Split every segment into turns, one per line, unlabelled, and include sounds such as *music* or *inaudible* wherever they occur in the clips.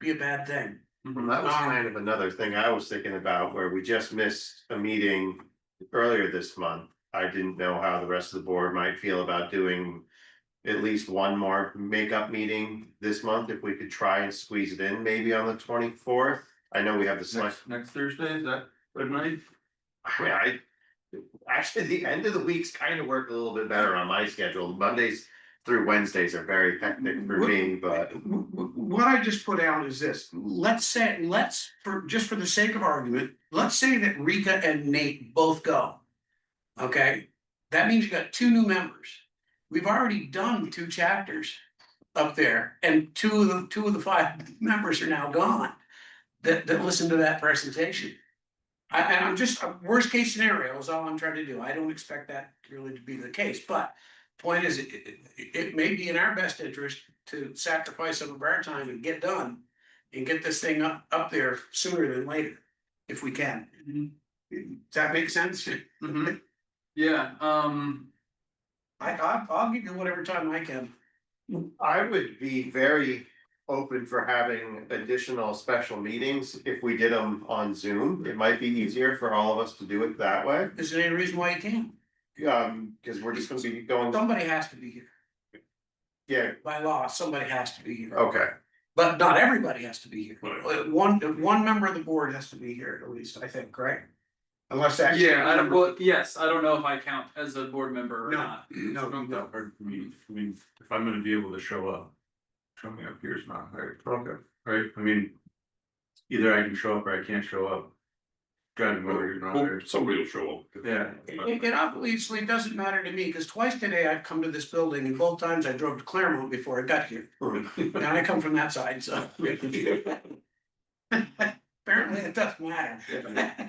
be a bad thing.
Well, That was kind of another thing I was thinking about where we just missed a meeting earlier this month. I didn't know how the rest of the board might feel about doing. At least one more makeup meeting this month, if we could try and squeeze it in, maybe on the twenty fourth. I know we have the
Next,
select,
next Thursday, is that good night?
I mean, I. Actually, the end of the weeks kind of worked a little bit better on my schedule. Mondays through Wednesdays are very hectic for me, but.
W- w- What I just put out is this, let's say, let's, for, just for the sake of argument, let's say that Rika and Nate both go. Okay, that means you got two new members. We've already done two chapters up there and two of the, two of the five *laughs* members are now gone. That, that listened to that presentation. I, and I'm just, worst case scenario is all I'm trying to do. I don't expect that really to be the case, but point is, it, it, it may be in our best interest to sacrifice some of our time and get done and get this thing up, up there sooner than later, if we can.
Mm-hmm.
Does that make sense? Mm-hmm.
Mhm. Yeah, um,
I, I, I'll give you whatever time I can.
I would be very open for having additional special meetings if we did them on Zoom. It might be easier for all of us to do it that way.
Is there any reason why you can't?
Um, cause we're just gonna be going,
Somebody has to be here.
yeah,
By law, somebody has to be here.
okay,
But not everybody has to be here.
Right.
Uh, One, one member of the board has to be here at least, I think, right? Unless that's.
yeah, I don't, well, yes, I don't know if I count as a board member or
No.
not.
No, no, no.
hard for me, I mean, if I'm gonna be able to show up, showing up here is not hard,
okay.
right, I mean. Either I can show up or I can't show up. Driving over here, not there.
Somebody will show up. *laughs*
yeah.
It, it obviously doesn't matter to me, because twice today I've come to this building and both times I drove to Claremont before I got here. And I come from that side, so. Apparently it doesn't matter.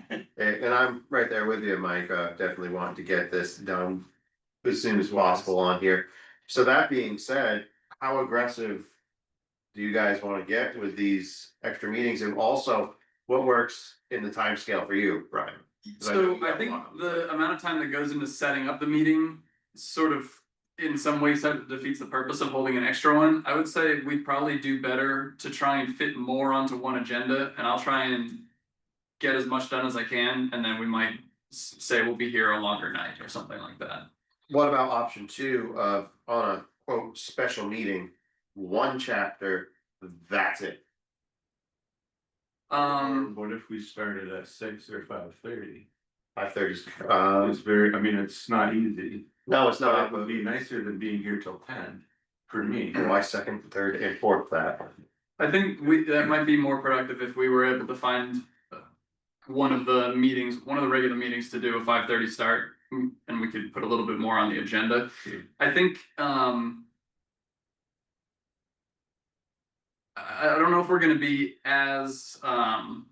And, and I'm right there with you, Mike, uh, definitely want to get this done as soon as possible on here. So that being said, how aggressive do you guys wanna get with these extra meetings? And also, what works in the timescale for you, Brian?
So I
Yeah.
think the amount of time that goes into setting up the meeting sort of in some ways that defeats the purpose of holding an extra one. I would say we'd probably do better to try and fit more onto one agenda and I'll try and get as much done as I can and then we might s- say we'll be here a longer night or something like that.
What about option two of on a quote special meeting, one chapter, that's it?
Um,
What if we started at six or five thirty?
Five thirty, um,
It's very, I mean, it's not easy,
no, it's
but it
not,
would be nicer than being here till ten, for me.
my second, third and fourth that.
I think we, that might be more productive if we were able to find uh, one of the meetings, one of the regular meetings to do a five thirty start, mm, and we could put a little bit more on the agenda. I think, um. I, I don't know if we're gonna be as, um,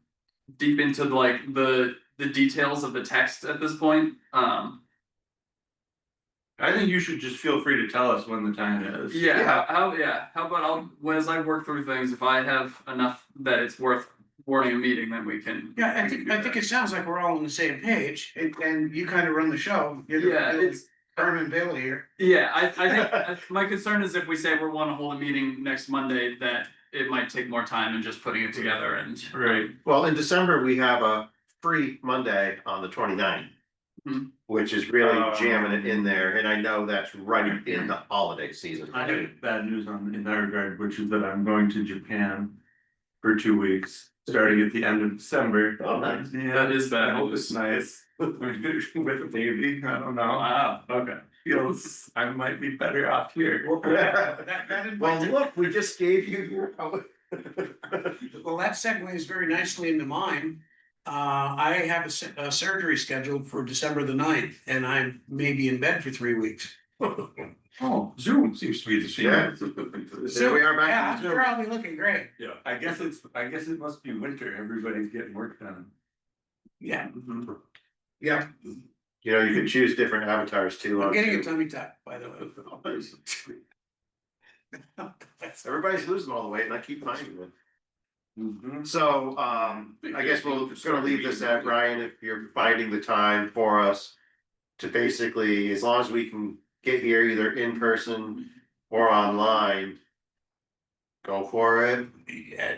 deep into like the, the details of the text at this point, um.
I think you should just feel free to tell us when the time is.
Yeah,
Yeah.
how, how, yeah, how about I'll, when as I work through things, if I have enough that it's worth warning a meeting, then we can.
Yeah, I
we can
think,
do
I think
that.
it sounds like we're all on the same page, and, and you kind of run the show. You're the-
Yeah,
you're the
it's,
Herman Bailey here.
yeah, I,
*laughs*
I think, I- my concern is if we say we wanna hold a meeting next Monday, that it might take more time and just putting it together and.
Right,
Well, in December, we have a free Monday on the 29th,
Hmm.
Which is really
Um,
jamming it in there, and I know that's right in the holiday season.
I have bad news on, in that regard, which is that I'm going to Japan for two weeks, starting at the end of December.
Oh, nice.
Yeah,
That is
I
bad.
hope it's nice. *laughs* With a baby, I don't know, Ah,
Wow, okay.
feels, I might be better off here.
That, that
Well,
invites-
look, we just gave you your.
Well, that segues very nicely into mine. Uh, I have a s- a surgery scheduled for December the ninth, and I may be in bed for three weeks.
Oh, Zoom seems to be the
Yeah.
same.
There we are
Yeah,
back.
I'm sure I'll be looking great.
Yeah, I guess it's, I guess it must be winter, everybody's getting work done.
Yeah,
Yeah. You know, you can choose different avatars too.
I'm
on
getting
Zoom.
a tummy tuck, by the way.
*laughs* Everybody's losing all the weight and I keep finding it.
Mhm.
So, um, I guess we'll just gonna leave this at Ryan, if you're finding the time for us. To basically, as long as we can get here either in person or online. Go for it.
Yeah,